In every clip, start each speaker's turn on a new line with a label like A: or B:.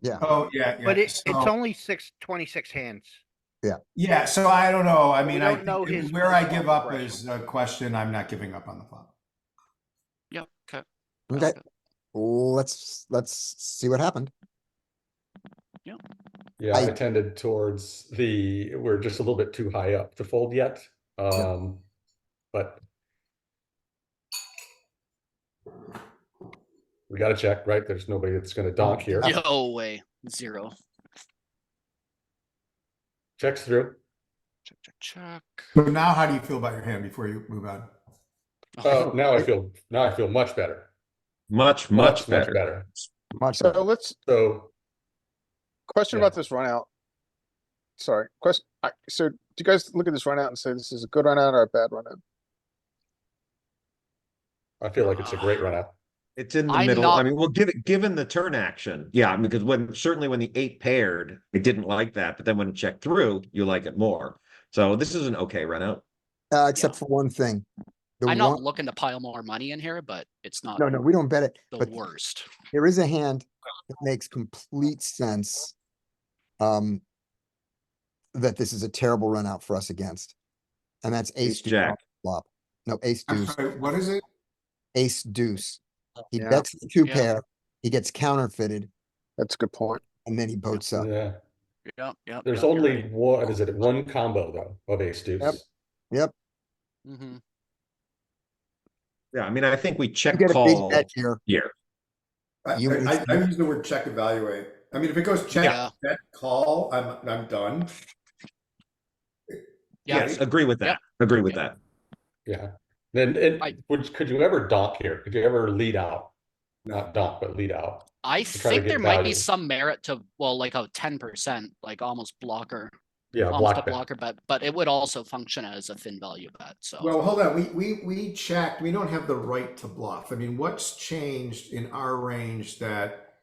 A: Yeah,
B: Oh, yeah, yeah.
C: But it, it's
B: So-
C: only six, twenty-six hands.
B: Yeah, so I don't know. I mean, I,
C: don't know
B: think
C: his
B: where I
C: personal
B: give up
C: progression.
B: is a question. I'm not giving up on the flop.
D: Yeah, okay. that's
A: okay,
D: good.
A: let's, let's see what happened.
E: Yeah,
A: I-
E: I tended towards the, we're just a little bit too high up to fold yet. Um, but we gotta check, right? There's nobody that's gonna donk here.
A: Yeah.
D: No way. Zero.
E: Checks through.
D: Check, check, check.
B: So now how do you feel about your hand before you move on?
E: Oh, now I feel, now I feel much better.
F: Much, much better.
A: Much
G: So
A: better.
G: let's,
E: So,
G: question
E: Yeah.
G: about this run out. Sorry, question, I, so do you guys look at this run out and say this is a good run out or a bad run out?
E: I feel like it's a great run out.
F: It's in the
D: I'm
F: middle.
D: not-
F: I mean, well, given, given the turn action, yeah, I mean, because when, certainly when the eight paired, I didn't like that, but then when it checked through, you like it more. So this is an okay run out.
A: Uh, except for one thing. The
D: I'm not
A: one,
D: looking to pile more money in here, but it's not
A: no, no, we don't bet it,
D: the
A: but
D: worst.
A: there is a hand that makes complete sense. Um. That this is a terrible run out for us against. And that's ace
F: Ace
A: deuce
F: jack.
A: off the flop. No, ace
B: I'm
A: deuce,
B: sorry, what is it?
A: ace deuce. He
G: Yeah.
A: bets the two
D: Yeah.
A: pair, he gets counterfeited,
G: That's a good point.
A: and then he boats up.
E: Yeah,
D: Yep, yep.
E: there's only one, is it one combo though of ace deuce?
D: hmm
F: Yeah, I mean, I think we
A: You
F: check
A: get a big
F: call
A: bet here.
F: here.
B: I,
A: You-
B: I, I use the word check evaluate. I mean, if it goes
D: Yeah.
B: check, bet, call, I'm, I'm done.
D: Yeah,
F: Yes, agree with that. Agree with that.
E: Yeah, then,
D: I-
E: and would, could you ever donk here? Could you ever lead out? Not donk, but lead out?
D: I
E: try to
D: think
E: get
D: there might be
E: value.
D: some merit to, well, like a ten percent, like almost blocker,
E: Yeah,
D: almost a
E: block bet.
D: blocker bet, but it would also function as a thin value bet, so.
B: Well, hold on. We, we, we checked. We don't have the right to bluff. I mean, what's changed in our range that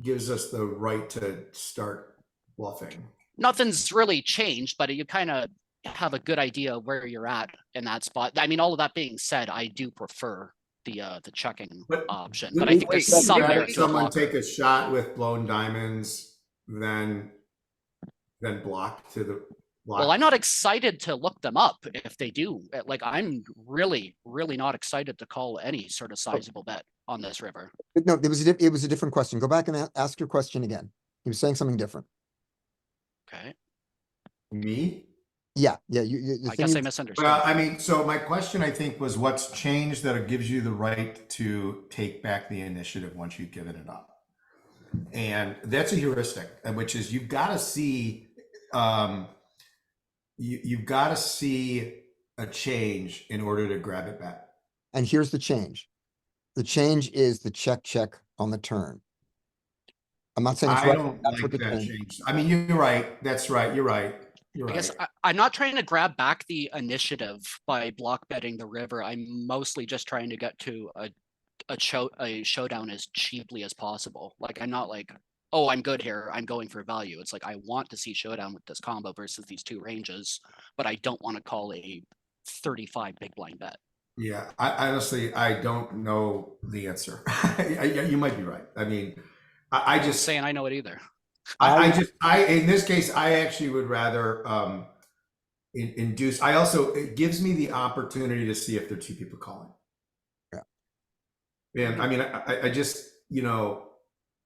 B: gives us the right to start bluffing?
D: Nothing's really changed, but you kind of have a good idea of where you're at in that spot. I mean, all of that being said, I do prefer the, uh, the checking
B: But
D: option,
B: Wouldn't
D: but I
B: you
D: think
B: like
D: there's some
B: that
D: merit
B: if
D: to a
B: Someone
D: blocker.
B: take a shot with blown diamonds, then, then block to the.
D: Well, I'm not excited to look them up if they do. uh, Like, I'm really, really not excited to call any sort of sizable bet on this river.
A: But No, it was, a di- it was a different question. Go back and a- ask your question again. He was saying something different.
D: Okay,
B: Me?
A: Yeah, yeah, you, you. the
D: I
A: thing
D: guess I
A: you-
B: Well,
D: misunderstood.
B: I mean, so my question, I think, was what's changed that it gives you the right to take back the initiative once you've given it up? And that's a heuristic, and which is you've got to see, um, you, you've got to see a change in order to grab it back.
A: And here's the change. The change is the check, check on the turn. I'm not saying it's
B: I
A: right.
B: don't
A: That's what
B: like
A: the
B: that
A: change.
B: change. I mean, you're right. That's right. You're right. You're
D: I
B: right.
D: guess I, I'm not trying to grab back the initiative by block betting the river. I'm mostly just trying to get to a, a show, a showdown as cheaply as possible. Like, I'm not like, oh, I'm good here. I'm going for value. It's like, I want to see showdown with this combo versus these two ranges, but I don't want to call a thirty-five big blind bet.
B: Yeah, I honestly, I don't know the answer. I- I- you might be right. I mean, I, I
D: Just
B: just, I,
D: saying I know it either.
B: I just, I, in this case, I actually would rather, um, in- induce, I also, it gives me the opportunity to see if there are two people calling.
A: Yeah.
B: And I mean, I, I- I just, you know,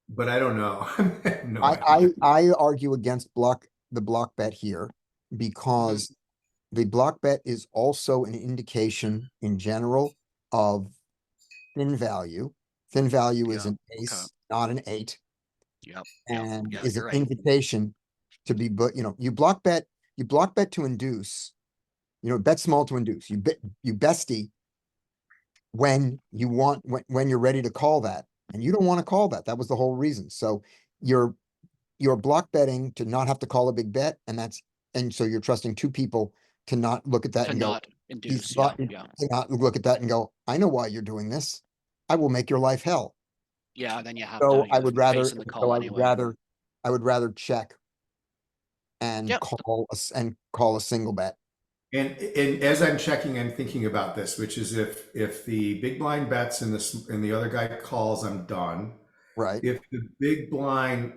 B: but I don't know. No
A: I,
B: idea.
A: I, I argue against block, the block bet here because
B: Mm-hmm.
A: the block bet is also an indication in general of thin value. Thin value is
D: Yeah,
A: an ace, not an eight.
D: Yep. Yeah,
A: and
D: yeah,
A: is
D: you're
A: an
D: right.
A: invitation to be, but you know, you block bet, you block bet to induce. You know, bet small to induce, you bet, you bestie. When you want, when, when you're ready to call that, and you don't wanna call that, that was the whole reason, so you're. You're block betting to not have to call a big bet, and that's, and so you're trusting two people to not look at that
D: to
A: and go,
D: not induce. Yeah,
A: got-
D: yeah,
A: to not look at that and go, I know why you're doing this. I will make your life hell.
D: yeah. Then you have.
A: So
D: to,
A: I
D: you're
A: would rather,
D: facing the
A: so
D: call
A: I would
D: anyway.
A: rather, I would rather check. And
D: Yep.
A: call us and call a single bet.
B: And, and as I'm checking, I'm thinking about this, which is if, if the big blind bets and this, and the other guy calls, I'm done.
A: Right.
B: If the big blind